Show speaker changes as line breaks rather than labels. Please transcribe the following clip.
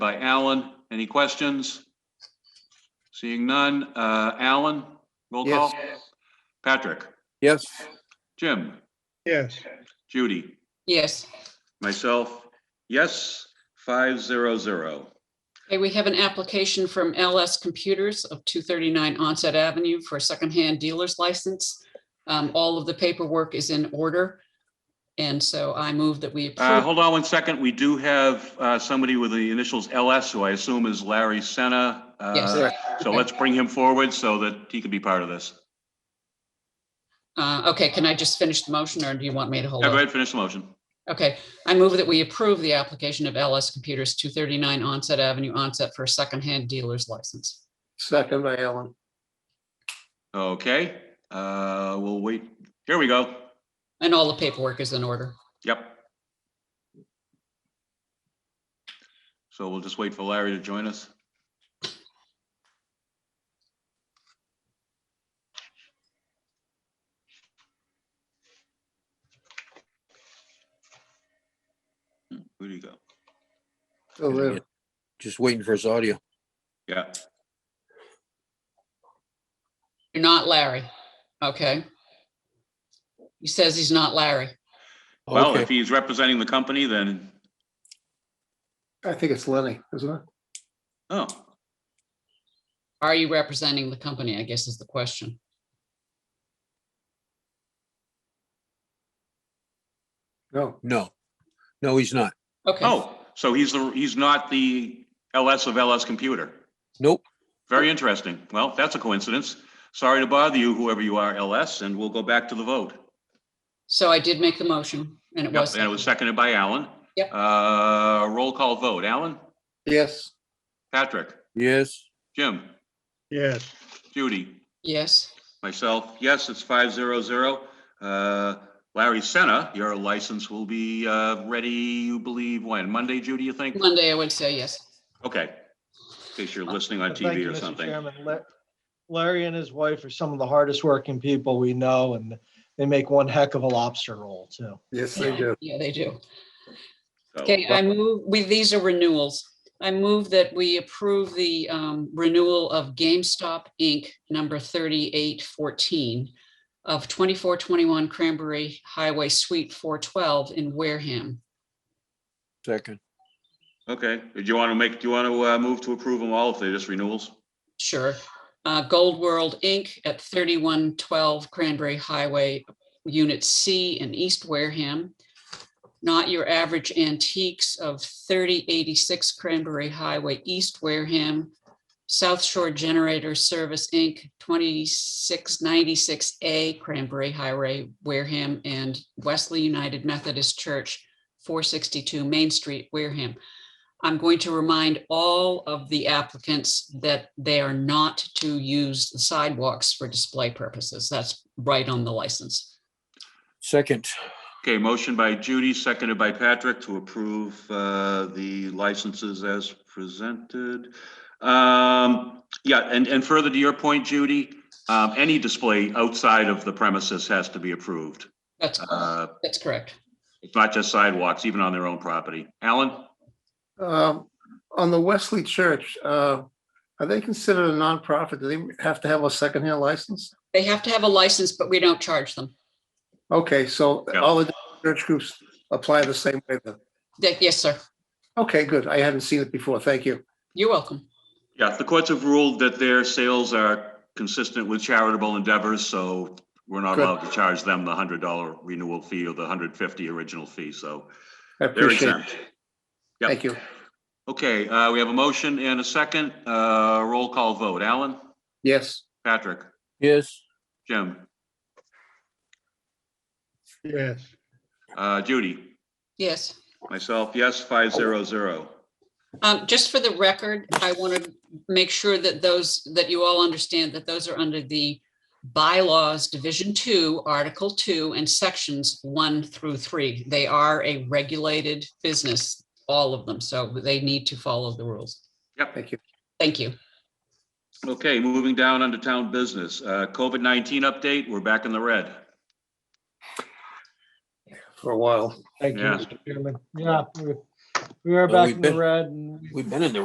by Alan. Any questions? Seeing none. Uh, Alan, roll call. Patrick,
Yes.
Jim,
Yes.
Judy,
Yes.
myself, yes, five zero zero.
Okay, we have an application from LS Computers of 239 Onset Avenue for a secondhand dealer's license. Um, All of the paperwork is in order. And so I move that we
Uh,
approve.
hold on one second. We do have, uh, somebody with the initials LS, who I assume is Larry Senna. Uh,
Yes.
So let's bring him forward so that he can be part of this.
Uh, Okay, can I just finish the motion or do you want me to hold
Yeah, Go
on?
ahead, finish the motion.
Okay, I move that we approve the application of LS Computers 239 Onset Avenue Onset for a secondhand dealer's license.
Second by Alan.
Okay, uh, we'll wait. Here we go.
And all the paperwork is in order.
Yep. So we'll just wait for Larry to join us. Hmm, Where do you go?
Still there. Just waiting for his audio.
Yeah,
You're not Larry. Okay. He says he's not Larry.
well,
Okay.
if he's representing the company, then,
I think it's Lenny, isn't it?
oh,
Are you representing the company, I guess is the question.
No. No. No, he's not.
Okay,
oh, so he's the, he's not the LS of LS Computer.
Nope.
Very interesting. Well, that's a coincidence. Sorry to bother you, whoever you are, LS, and we'll go back to the vote.
so I did make the motion and it
Yep,
was.
and it was seconded by Alan.
Yep.
Uh, roll call vote. Alan,
Yes.
Patrick,
Yes.
Jim,
Yes.
Judy,
Yes,
myself. Yes, it's five zero zero. Uh, Larry Senna, your license will be, uh, ready, you believe, when? Monday, Judy, you think?
Monday I would say yes.
Okay. In case you're listening on
Uh, Thank you,
TV or
Mr.
something.
Chairman. La- Larry and his wife are some of the hardest working people we know, and they make one heck of a lobster roll too.
Yes,
Yeah, they do.
Oh, So,
Okay, I move, we, these are renewals. I move that we approve the um, renewal of GameStop Inc., number 3814 of 2421 Cranberry Highway Suite 412 in Wareham.
Second.
Okay, do you want to make, do you want to, uh, move to approve them all if they're just renewals?
Sure. Uh, Gold World Inc. at thirty-one twelve Cranberry Highway, Unit C in East Wareham. Not Your Average Antiques of thirty eighty-six Cranberry Highway, East Wareham. South Shore Generator Service Inc., twenty-six ninety-six A Cranberry Highway, Wareham, and Wesley United Methodist Church, four sixty-two Main Street, Wareham. I'm going to remind all of the applicants that they are not to use the sidewalks for display purposes. That's right on the license.
Second.
Okay, motion by Judy, seconded by Patrick to approve uh, the licenses as presented. Um, Yeah, and, and further to your point, Judy, um, any display outside of the premises has to be approved.
That's,
Uh,
that's correct.
It's not just sidewalks, even on their own property. Alan?
Um, on the Wesley Church, uh, are they considered a nonprofit? Do they have to have a secondhand license?
They have to have a license, but we don't charge them.
Okay, so
No.
all the church groups apply the same way then.
They- Yes, sir.
Okay, good. I hadn't seen it before. Thank you.
You're welcome.
Yeah, the courts have ruled that their sales are consistent with charitable endeavors, so we're not
Good.
allowed to charge them the $100 renewal fee or the 150 original fee, so
I
they're
appreciate it.
exempt. Yep.
Thank you.
Okay, uh, we have a motion and a second. Uh, Roll call vote. Alan?
Yes,
Patrick?
Yes.
Jim?
Yes.
uh, Judy?
Yes.
Myself, yes, 500.
Um, just for the record, I want to make sure that those, that you all understand that those are under the bylaws, Division Two, Article Two, and Sections One through Three. They are a regulated business, all of them, so they need to follow the rules.
Yep.
thank you.
Thank you.
Okay, moving down under town business. Uh, COVID-19 update, we're back in the red.
For a while.
Thank you,
Yeah.
Mr. Chairman. Yeah, we- We are
Well,
back
we've
in the
been-
red and
We've been in the